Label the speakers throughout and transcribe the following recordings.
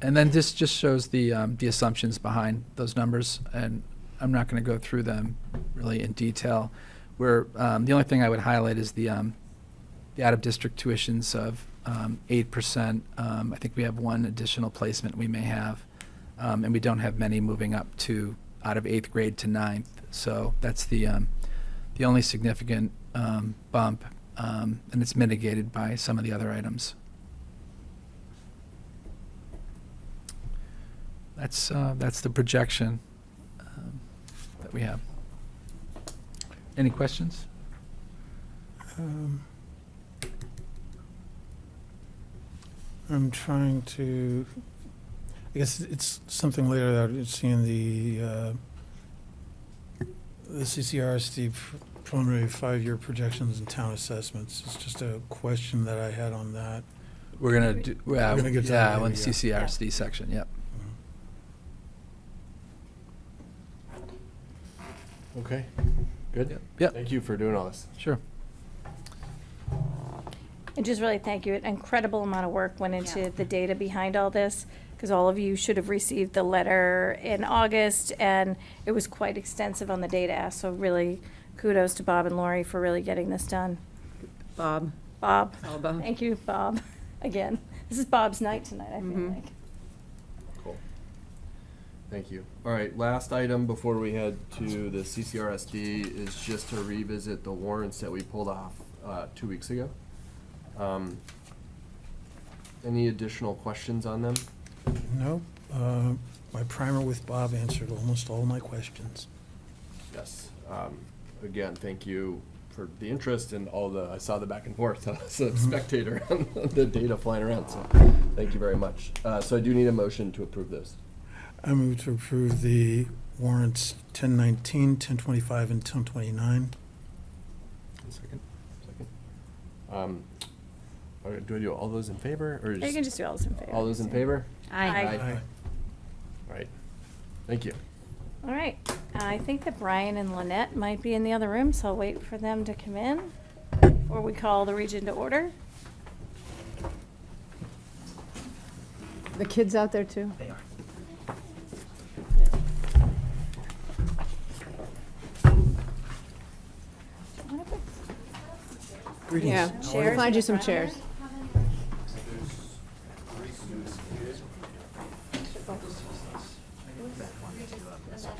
Speaker 1: And then this just shows the, um, the assumptions behind those numbers, and I'm not going to go through them really in detail. Where, um, the only thing I would highlight is the, um, the out-of-district tuitions of, um, eight percent. Um, I think we have one additional placement we may have, um, and we don't have many moving up to, out of eighth grade to ninth. So that's the, um, the only significant, um, bump, um, and it's mitigated by some of the other items. That's, uh, that's the projection um, that we have. Any questions?
Speaker 2: Um, I'm trying to, I guess it's something later that I've seen the, uh, the CCRSD pr- preliminary five-year projections and town assessments. It's just a question that I had on that.
Speaker 1: We're gonna do, yeah,
Speaker 2: gonna get to that
Speaker 1: yeah, on the
Speaker 2: later, yeah.
Speaker 1: CCRSD section, yep.
Speaker 3: Okay, good.
Speaker 1: Yep, Yep,
Speaker 3: Thank you for doing all this.
Speaker 1: sure.
Speaker 4: And just really thank you. An incredible amount of work went
Speaker 5: Yeah.
Speaker 4: into the data behind all this, because all of you should have received the letter in August, and it was quite extensive on the data, so really kudos to Bob and Lori for really getting this done.
Speaker 5: Bob,
Speaker 4: Bob,
Speaker 5: all about.
Speaker 4: thank you, Bob, again. This is Bob's night tonight, I feel
Speaker 5: Mhm.
Speaker 4: like.
Speaker 3: Cool. Thank you. All right, last item before we head to the CCRSD is just to revisit the warrants that we pulled off uh, two weeks ago. Um, Any additional questions on them?
Speaker 2: Nope, uh, my primer with Bob answered almost all my questions.
Speaker 3: Yes. Um, Again, thank you for the interest and all the, I saw the back and forth as a spectator on the data flying around, so thank you very much. Uh, So I do need a motion to approve those.
Speaker 2: I move to approve the warrants 1019, 1025, and 1029.
Speaker 3: Second. Second. Um, all right, Do I do all those in favor, or
Speaker 4: Or You can
Speaker 3: just,
Speaker 4: just do all those in favor.
Speaker 3: all those in favor?
Speaker 4: Aye.
Speaker 3: All right, thank you.
Speaker 4: All right. I think that Brian and Lynette might be in the other room, so I'll wait for them to come in, or we call the region to order.
Speaker 6: The kids out there too?
Speaker 2: Greetings.
Speaker 6: Yeah,
Speaker 4: Chairs
Speaker 6: we'll find you
Speaker 4: in
Speaker 6: some
Speaker 4: the front.
Speaker 6: chairs.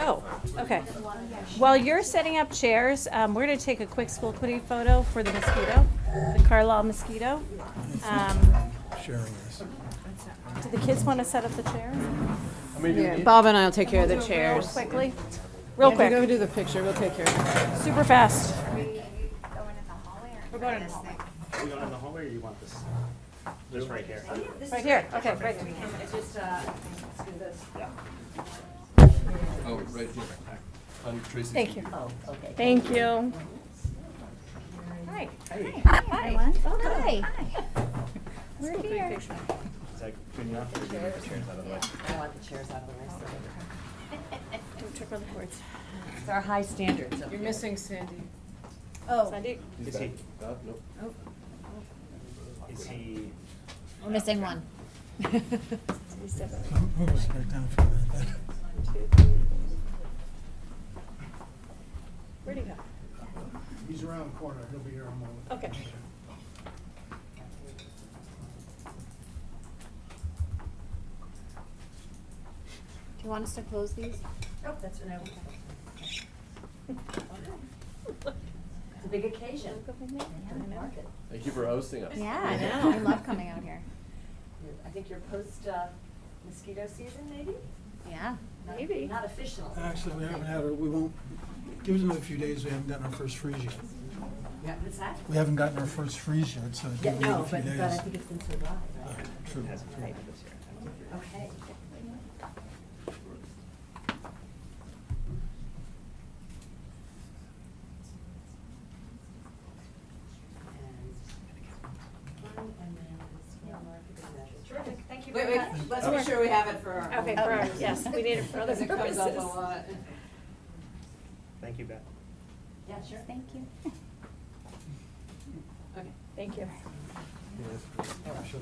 Speaker 4: Oh, okay. While you're setting up chairs, um, we're gonna take a quick school committee photo for the mosquito, the Carlisle mosquito. Um,
Speaker 2: Sharing this.
Speaker 4: do the kids wanna set up the chairs
Speaker 6: Yeah, Bob and I will take care of the
Speaker 4: real
Speaker 6: chairs.
Speaker 4: quickly? Real
Speaker 6: If you go
Speaker 4: quick,
Speaker 6: do the picture, we'll take care of it.
Speaker 4: super fast.
Speaker 7: Are we going in the hallway or? We're going in the hallway.
Speaker 8: Are you going in the hallway or you want this? This right here?
Speaker 4: Right here, okay, right.
Speaker 3: Oh, right here. On Tracy's.
Speaker 4: Thank you. Oh, okay. Thank you. Hi. Hi. Hi.
Speaker 7: Hi.
Speaker 4: We're here.
Speaker 8: Is that good enough? Or do you need the chairs out of the way?
Speaker 9: I want the chairs out of the way. so-
Speaker 4: Don't trip on the cords.
Speaker 9: It's our high standards up
Speaker 6: You're
Speaker 9: here.
Speaker 6: missing Sandy.
Speaker 4: Sandy?
Speaker 8: Is he,
Speaker 3: Uh, nope.
Speaker 8: is he,
Speaker 7: We're missing one.
Speaker 2: Move us right down for that.
Speaker 4: Where'd he go?
Speaker 10: He's around the corner, he'll be here in a moment.
Speaker 4: Okay.
Speaker 7: Do you want us to close these?
Speaker 9: Oh, that's what I want. It's a big occasion. Mark it.
Speaker 3: Thank you for hosting us.
Speaker 7: Yeah,
Speaker 9: I
Speaker 7: I know.
Speaker 9: know.
Speaker 7: I love coming out here.
Speaker 9: You're- I think you're post uh, mosquito season, maybe?
Speaker 7: Yeah.
Speaker 9: Not-
Speaker 4: Maybe.
Speaker 9: Not official.
Speaker 2: Actually, we haven't had, our- we won't, give us another few days, we haven't gotten our first freeze yet.
Speaker 9: Yeah, what's that?
Speaker 2: We haven't gotten our first freeze yet, so
Speaker 9: Yeah,
Speaker 2: give it a
Speaker 9: no,
Speaker 2: few
Speaker 9: but, but I
Speaker 2: days.
Speaker 9: think it's been so dry, right?
Speaker 2: True.
Speaker 9: Okay. Terrific, thank you
Speaker 5: Wait,
Speaker 9: very
Speaker 5: wait,
Speaker 9: much.
Speaker 5: let's make sure we have it for our.
Speaker 4: Okay,
Speaker 5: own-
Speaker 4: for ours, Oh, yes, we need it for other
Speaker 5: Because it comes up a
Speaker 4: purposes.
Speaker 5: lot.
Speaker 8: thank you, Beth.
Speaker 9: Yeah, sure.
Speaker 7: Thank you.
Speaker 9: Okay.
Speaker 4: Thank you.